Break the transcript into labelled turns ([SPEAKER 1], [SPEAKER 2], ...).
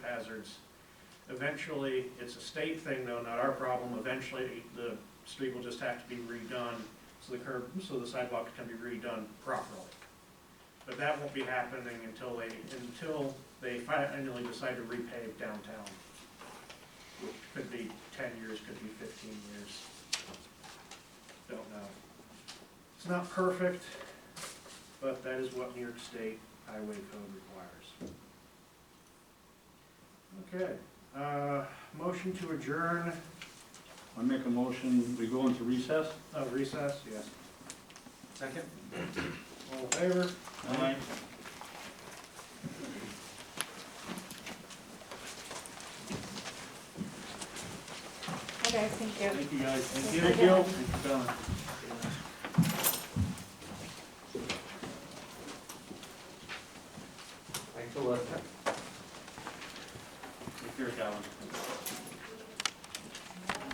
[SPEAKER 1] hazards. Eventually, it's a state thing though, not our problem, eventually the street will just have to be redone, so the curb, so the sidewalk can be redone properly. But that won't be happening until they, until they finally decide to repave downtown. Could be ten years, could be fifteen years. Don't know. It's not perfect, but that is what New York State Highway Code requires. Okay, uh, motion to adjourn,
[SPEAKER 2] I make a motion, we go into recess?
[SPEAKER 1] uh, recess, yes.
[SPEAKER 2] Second.
[SPEAKER 1] All in favor?
[SPEAKER 2] Aye.
[SPEAKER 3] Okay, thank you.
[SPEAKER 2] Thank you, guys.
[SPEAKER 3] Thank you.
[SPEAKER 2] Thank you. Thanks for coming.
[SPEAKER 4] Thanks a lot.
[SPEAKER 2] Take care, Calvin.